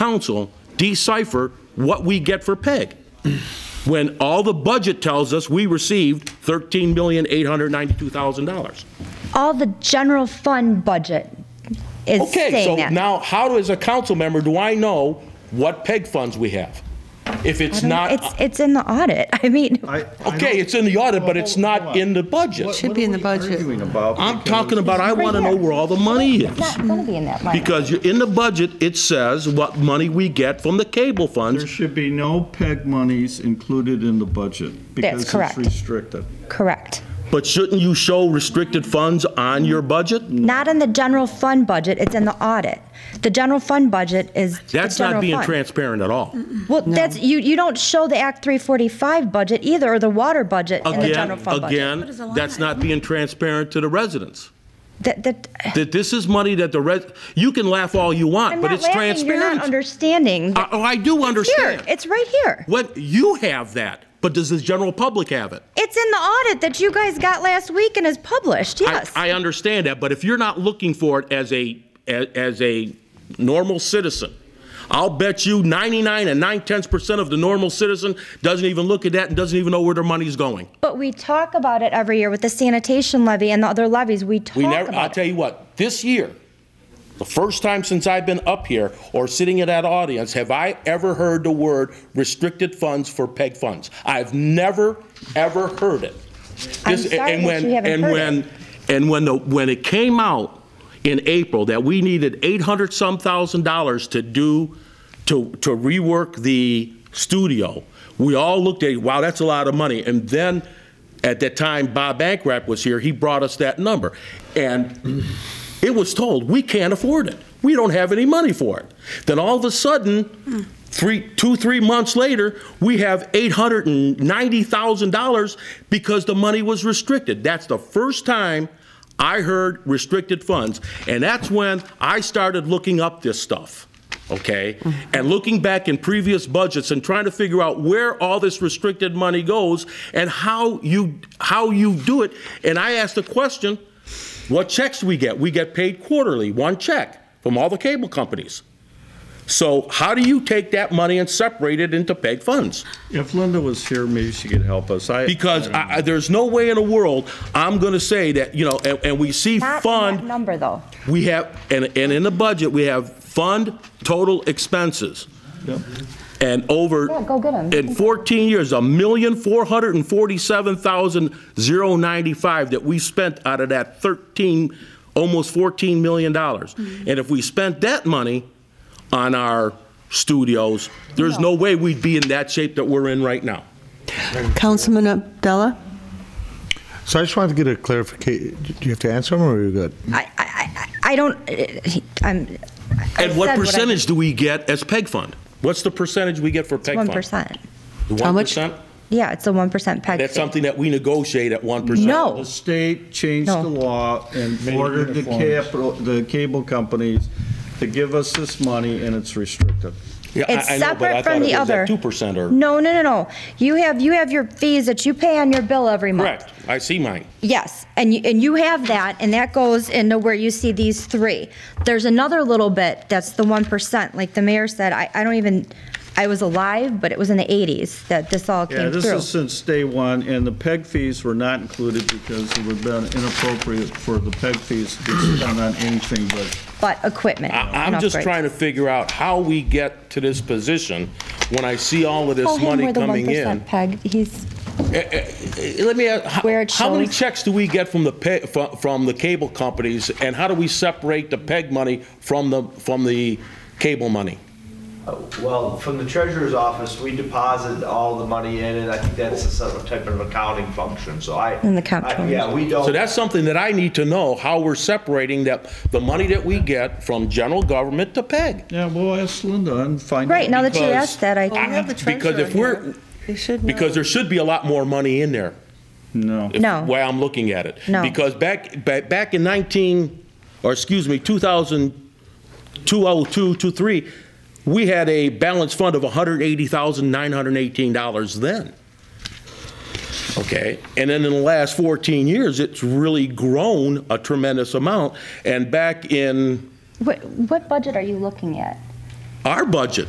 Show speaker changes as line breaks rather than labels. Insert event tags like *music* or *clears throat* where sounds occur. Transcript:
council decipher what we get for PEG? *clears throat* When all the budget tells us we received $13,892,000.
All the general fund budget is
Okay,
saying
so
that.
now how, as a council member, do I know what PEG funds we have? If
I
it's
don't-
not. uh,
It's, it's in the audit. *laughs* I mean,
Okay, it's in the audit, but it's not in the budget.
Should be in the budget.
I'm talking about, I want to know where all the money is.
it's going to be in that line.
Because you're- in the budget, it says what money we get from the cable
There
funds.
should be no PEG monies included in the budget.
correct.
Because it's restricted.
Correct.
But shouldn't you show restricted funds on your budget?
Not in the general fund budget, it's in the audit. The general fund budget is the
That's not
general
being
fund.
transparent at all.
Well, that's, you, you don't show the Act 345 budget either, or the water budget in the general
Again,
fund budget.
again, that's not being transparent to the residents.
That, that,
That this is money that the res, you can laugh all you
I'm
want, but
not
it's
laughing, you're
transparent.
not understanding.
I- Oh, I do
Here,
understand.
it's right here.
What, you have that, but does the general public have it?
It's in the audit that you guys got last week and is published,
I-
yes.
I understand that, but if you're not looking for it as a, as as a normal citizen, I'll bet you 99 and 9 tenths percent of the normal citizen doesn't even look at that and doesn't even know where their money's going.
But we talk about it every year with the sanitation levy and the other levies, we talk
We never, uh, I'll
about
tell
it.
you what, this year, the first time since I've been up here or sitting in that audience, have I ever heard the word restricted funds for PEG funds? I've never, ever heard it.
I'm
This-
sorry
and
that
when-
you haven't
and
heard
when-
it.
And when, the- when it came out in April that we needed 800-some thousand dollars to do, to, to rework the studio, we all looked at, it, wow, that's a lot of money. And then, at that time, Bob Bankrap was here, he brought us that number. And it was told, we can't afford it. We don't have any money for it. Then all of a sudden, three, two, three months later, we have $890,000 because the money was restricted. That's the first time I heard restricted funds. And that's when I started looking up this stuff, okay? And looking back in previous budgets and trying to figure out where all this restricted money goes and how you, how you do it. And I asked the question, what checks we get? We get paid quarterly, one check from all the cable companies. So how do you take that money and separate it into PEG funds?
If Linda was here, maybe she could help us. I-
Because
I don't know.
I, I- there's no way in the world I'm going to say that, you know, and, and we see
Not in that
fund,
number, though.
we have, and, and in the budget, we have fund total expenses. And over.
Yeah, go get 'em.
In 14 years, a million four hundred and forty-seven thousand zero ninety-five that we spent out of that 13, almost 14 million dollars.
Mm-hmm.
And if we spent that money on our studios, there's no way we'd be in that shape that we're in right now.
Councilman Abdullah?
So I just wanted to get a clarification. Do you have to answer them, or are you good?
I, I, I- I don't, uh, I'm. I
And what
said I-
percentage do we get as PEG fund? What's the percentage we get for PEG fund?
1%.
How much?
1%?
Yeah, it's a 1% PEG.
That's
fee.
something that we negotiate at 1%.
No.
The state changed the
No.
law and ordered the capital, the cable companies to give us this money, and it's restricted.
Yeah, I-
It's
I know, but I
separate
thought
from
it
the
was at
other.
2% or.
No, no, no, no. You have, you have your fees that you pay on your bill every month.
Correct, I see mine.
Yes, and you, and you have that, and that goes into where you see these three. There's another little bit that's the one percent, like the mayor said, I, I don't even, I was alive, but it was in the eighties that this all
Yeah,
came
this is
through.
since day one, and the PEG fees were not included because it would have been inappropriate for the PEG fees to be spent on anything but
But equipment.
I- I'm
and
just
upgrades.
trying to figure out how we get to this position when I see all of
Oh,
this money coming in.
Peg, he's,
Eh, Let me ask,
Where
how-
it
how many
shows.
checks do we get from the, pe- fro- from the cable companies, and how do we separate the PEG money from the, from the cable money?
Uh, Well, from the treasurer's office, we deposit all the money in, and I think that's a sort of type of accounting function, so I.
And the comptroller.
I- Yeah, we don't.
So that's something that I need to know, how we're separating that, the money that we get from general government to PEG.
Yeah, we'll ask Linda and find out.
right, now that you
because
asked that, I,
Well, we have the
Because
treasurer
if we're,
here. They should know.
because there should be a lot more money in there.
No.
if-
No.
Way I'm looking at it.
No.
Because back, back, back in 19, or excuse me, 2000, 2002, 23, we had a balanced fund of $180,918 then. Okay, and then in the last 14 years, it's really grown a tremendous amount. And back in
what, what budget are you looking at?
our budget.